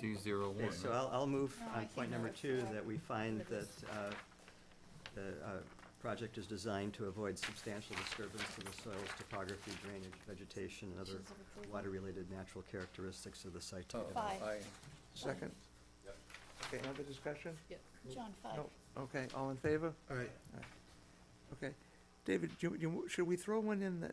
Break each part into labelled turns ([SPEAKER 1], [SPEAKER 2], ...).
[SPEAKER 1] two zero one.
[SPEAKER 2] Okay, so I'll, I'll move
[SPEAKER 3] No, Oh, I
[SPEAKER 2] on
[SPEAKER 3] think
[SPEAKER 2] point number
[SPEAKER 3] that's
[SPEAKER 2] two,
[SPEAKER 3] fine.
[SPEAKER 2] that we find
[SPEAKER 3] But
[SPEAKER 2] that
[SPEAKER 3] it's-
[SPEAKER 2] uh, the uh, project is designed to avoid substantial disturbance to the soils, topography, drainage, vegetation, and other
[SPEAKER 3] Conditions of approval.
[SPEAKER 2] water-related natural characteristics of the site. to
[SPEAKER 4] Oh,
[SPEAKER 2] develop.
[SPEAKER 3] Five.
[SPEAKER 4] aye. Second? Okay, another discussion?
[SPEAKER 3] John, five.
[SPEAKER 4] No, okay, all in favor?
[SPEAKER 5] All right,
[SPEAKER 4] Okay. David, do you, do you, should we throw one in that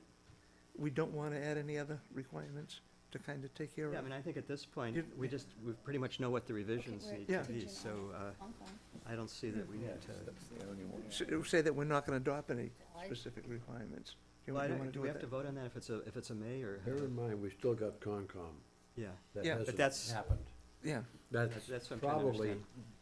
[SPEAKER 4] we don't want to add any other requirements to kind of take care of?
[SPEAKER 2] Yeah, I mean, I think at this point,
[SPEAKER 4] You-
[SPEAKER 2] we just, we pretty much know what the revisions
[SPEAKER 3] we're
[SPEAKER 2] need
[SPEAKER 4] Yeah.
[SPEAKER 2] to be,
[SPEAKER 3] contingent
[SPEAKER 2] so
[SPEAKER 3] on-
[SPEAKER 2] uh,
[SPEAKER 3] on them.
[SPEAKER 2] I don't see that we need to.
[SPEAKER 4] S- Say that we're not going to adopt any
[SPEAKER 3] I-
[SPEAKER 4] specific requirements. Do you
[SPEAKER 2] Well, I
[SPEAKER 4] want
[SPEAKER 2] don't-
[SPEAKER 4] to
[SPEAKER 2] do
[SPEAKER 4] do
[SPEAKER 2] we
[SPEAKER 4] it
[SPEAKER 2] have to
[SPEAKER 4] that?
[SPEAKER 2] vote on that if it's a, if it's a may or?
[SPEAKER 5] bear in mind, we still got Concom.
[SPEAKER 2] Yeah,
[SPEAKER 5] That
[SPEAKER 4] Yeah, but
[SPEAKER 5] hasn't
[SPEAKER 2] that's-
[SPEAKER 5] happened.
[SPEAKER 4] Yeah,
[SPEAKER 2] That- that's
[SPEAKER 5] That's
[SPEAKER 2] what I'm trying to
[SPEAKER 5] probably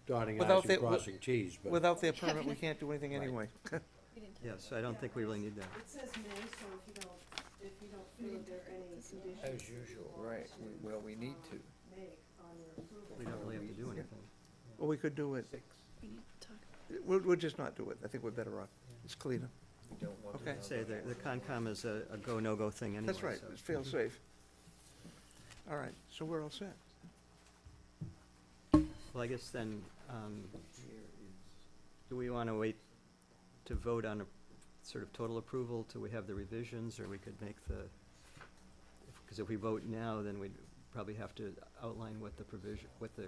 [SPEAKER 5] dotting
[SPEAKER 4] Without
[SPEAKER 5] i's
[SPEAKER 4] the-
[SPEAKER 5] and crossing t's, but
[SPEAKER 4] without their
[SPEAKER 3] Yeah,
[SPEAKER 4] permit, we
[SPEAKER 3] but-
[SPEAKER 4] can't do anything
[SPEAKER 5] Right.
[SPEAKER 4] anyway.
[SPEAKER 3] We didn't
[SPEAKER 2] yeah,
[SPEAKER 3] touch
[SPEAKER 2] so I don't think we really need that.
[SPEAKER 6] It says may, so if you don't, if you don't feel that there are any conditions.
[SPEAKER 4] As usual,
[SPEAKER 6] you
[SPEAKER 4] right,
[SPEAKER 6] want
[SPEAKER 4] we- well, we need
[SPEAKER 6] um,
[SPEAKER 4] to.
[SPEAKER 6] Make on your approval.
[SPEAKER 2] We don't really have to do
[SPEAKER 4] Yeah.
[SPEAKER 2] anything.
[SPEAKER 4] Or we could do it,
[SPEAKER 3] it. We need to talk.
[SPEAKER 4] we'll, we'll just not do it. I think we're better off. It's cleaner. Okay,
[SPEAKER 2] I'd Say the, the Concom is a, a go, no-go thing anyway.
[SPEAKER 4] that's right,
[SPEAKER 2] so-
[SPEAKER 4] it's fail safe. All right, so we're all set.
[SPEAKER 2] Well, I guess then, um, do we want to wait to vote on a sort of total approval till we have the revisions, or we could make the, because if we vote now, then we'd probably have to outline what the provision, what the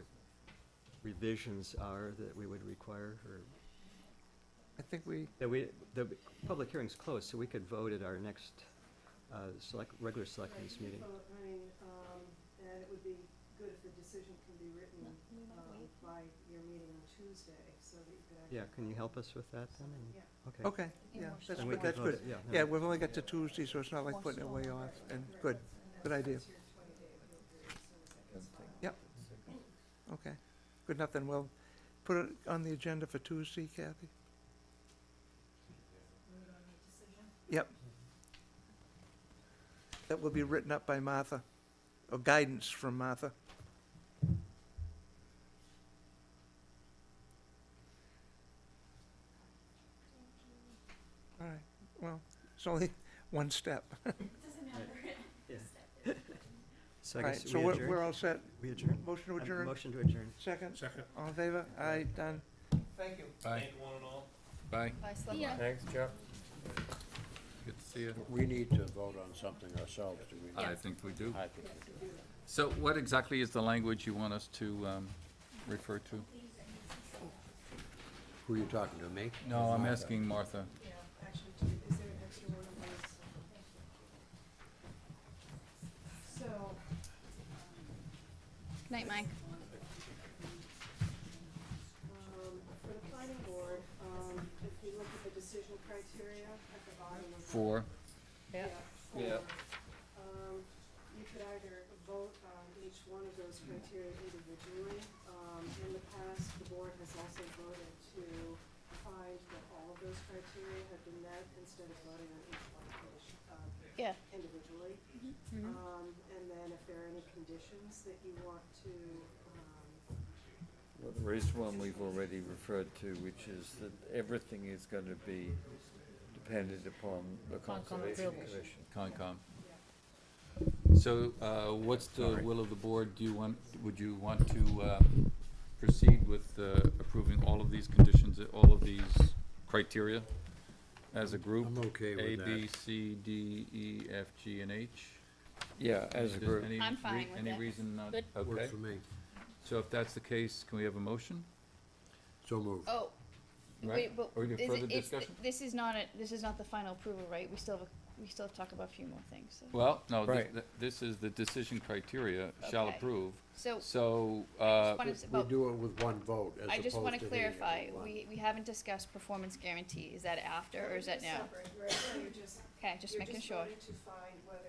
[SPEAKER 2] revisions are that we would require, or,
[SPEAKER 4] I think we,
[SPEAKER 2] that we, the public hearing's closed, so we could vote at our next, uh, select, regular selectmen's
[SPEAKER 6] Right, you
[SPEAKER 2] meeting.
[SPEAKER 6] could vote, I mean, um, and it would be good if the decision can be written,
[SPEAKER 3] No, we might
[SPEAKER 6] um,
[SPEAKER 3] wait.
[SPEAKER 6] by your meeting on Tuesday, so that you could actually.
[SPEAKER 2] Yeah, can you help us with that then? And-
[SPEAKER 6] Yeah.
[SPEAKER 2] Okay.
[SPEAKER 4] okay,
[SPEAKER 3] Yeah,
[SPEAKER 4] yeah,
[SPEAKER 3] more
[SPEAKER 4] that's
[SPEAKER 2] Then
[SPEAKER 3] so.
[SPEAKER 2] we
[SPEAKER 4] good,
[SPEAKER 2] could
[SPEAKER 4] that's
[SPEAKER 2] vote
[SPEAKER 4] good.
[SPEAKER 2] it, Yeah. no.
[SPEAKER 4] Yeah, we've only got to Tuesday, so it's not like
[SPEAKER 3] Or
[SPEAKER 4] putting it way
[SPEAKER 3] so.
[SPEAKER 4] off, and good, good idea.
[SPEAKER 6] That's your 20 day, you'll do it as soon as that's filed.
[SPEAKER 4] Yep. Okay, good enough then, we'll put it on the agenda for Tuesday, Kathy? Yep. That will be written up by Martha, or guidance from Martha. All right, well, it's only one step.
[SPEAKER 2] Yeah. So I
[SPEAKER 4] All right,
[SPEAKER 2] guess we
[SPEAKER 4] so we're, we're
[SPEAKER 2] adjourn.
[SPEAKER 4] all set.
[SPEAKER 2] We adjourn.
[SPEAKER 4] Motion to
[SPEAKER 2] Uh,
[SPEAKER 4] adjourn,
[SPEAKER 2] Motion to adjourn.
[SPEAKER 4] second?
[SPEAKER 5] Second.
[SPEAKER 4] All in favor? Aye, done. Thank you.
[SPEAKER 7] Bye. Bye.
[SPEAKER 3] Bye, Slugma.
[SPEAKER 7] Bye. Thanks, Chuck. Good to see you.
[SPEAKER 5] we need to vote on something ourselves, do we not?
[SPEAKER 7] I think we do.
[SPEAKER 5] I think we do.
[SPEAKER 7] So what exactly is the language you want us to um, refer to?
[SPEAKER 5] Who are you talking to, me?
[SPEAKER 7] No, I'm asking Martha.
[SPEAKER 6] Yeah, actually, do, is there an extra one of those? So,
[SPEAKER 3] Night, Mike.
[SPEAKER 6] um, for the planning board, um, if you look at the decision criteria at the bottom of. the-
[SPEAKER 7] Four.
[SPEAKER 3] Yeah.
[SPEAKER 6] Yeah. Um, you could either vote on each one of those criteria individually. Um, in the past, the board has also voted to find that all of those criteria have been met instead of voting on each one of those, uh,
[SPEAKER 3] Yeah. Mm-hmm.
[SPEAKER 6] individually. Um, and then if there are any conditions that you want to, um,
[SPEAKER 8] Well, there is one we've already referred to, which is that everything is gonna be dependent upon the Conservation Commission.
[SPEAKER 7] Concom. So uh, what's the will of the board? Do you want, would you want to uh, proceed with uh, approving all of these conditions, all of these criteria as a group?
[SPEAKER 5] I'm okay with that.
[SPEAKER 7] A, B, C, D, E, F, G, and H?
[SPEAKER 8] Yeah, as a
[SPEAKER 7] Does
[SPEAKER 8] group.
[SPEAKER 7] any
[SPEAKER 3] I'm fine
[SPEAKER 7] re-
[SPEAKER 3] with
[SPEAKER 7] Any
[SPEAKER 3] it.
[SPEAKER 7] reason not?
[SPEAKER 3] Good.
[SPEAKER 7] Okay.
[SPEAKER 5] Works for me.
[SPEAKER 7] So if that's the case, can we have a motion?
[SPEAKER 5] So moved.
[SPEAKER 3] Oh,
[SPEAKER 7] Right?
[SPEAKER 3] wait, but
[SPEAKER 7] Or
[SPEAKER 3] is
[SPEAKER 7] you
[SPEAKER 3] it,
[SPEAKER 7] have further
[SPEAKER 3] it's-
[SPEAKER 7] discussion?
[SPEAKER 3] this is not a, this is not the final approval, right? We still have, a- we still have to talk about a few more things, so.
[SPEAKER 7] Well, no, thi-
[SPEAKER 8] Right.
[SPEAKER 7] thi- this is the decision criteria, shall
[SPEAKER 3] Okay.
[SPEAKER 7] approve.
[SPEAKER 3] So,
[SPEAKER 7] So,
[SPEAKER 3] I
[SPEAKER 7] uh,
[SPEAKER 3] just wanna s-
[SPEAKER 5] We
[SPEAKER 3] well,
[SPEAKER 5] do it with one vote as opposed to
[SPEAKER 3] I just wanna
[SPEAKER 5] hitting it with
[SPEAKER 3] clarify,
[SPEAKER 5] one.
[SPEAKER 3] we, we haven't discussed performance guarantee. Is that after or is that now?
[SPEAKER 6] separate, right? So you're just,
[SPEAKER 3] Okay, just
[SPEAKER 6] you're
[SPEAKER 3] making
[SPEAKER 6] just
[SPEAKER 3] sure.
[SPEAKER 6] voting to find whether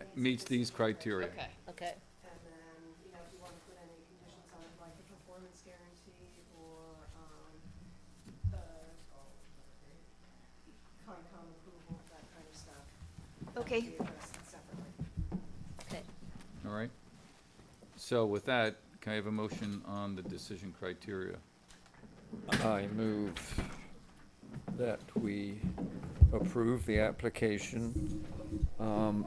[SPEAKER 6] it
[SPEAKER 7] meets
[SPEAKER 6] the
[SPEAKER 7] these
[SPEAKER 6] specific
[SPEAKER 7] criteria.
[SPEAKER 3] Okay. Okay.
[SPEAKER 6] And then, you know, if you wanna put any conditions on it, like a performance guarantee or, um, uh, Concom approval, that kind of stuff.
[SPEAKER 3] Okay.
[SPEAKER 6] Be addressed separately.
[SPEAKER 7] All right. So with that, can I have a motion on the decision criteria?
[SPEAKER 8] I move that we approve the application um,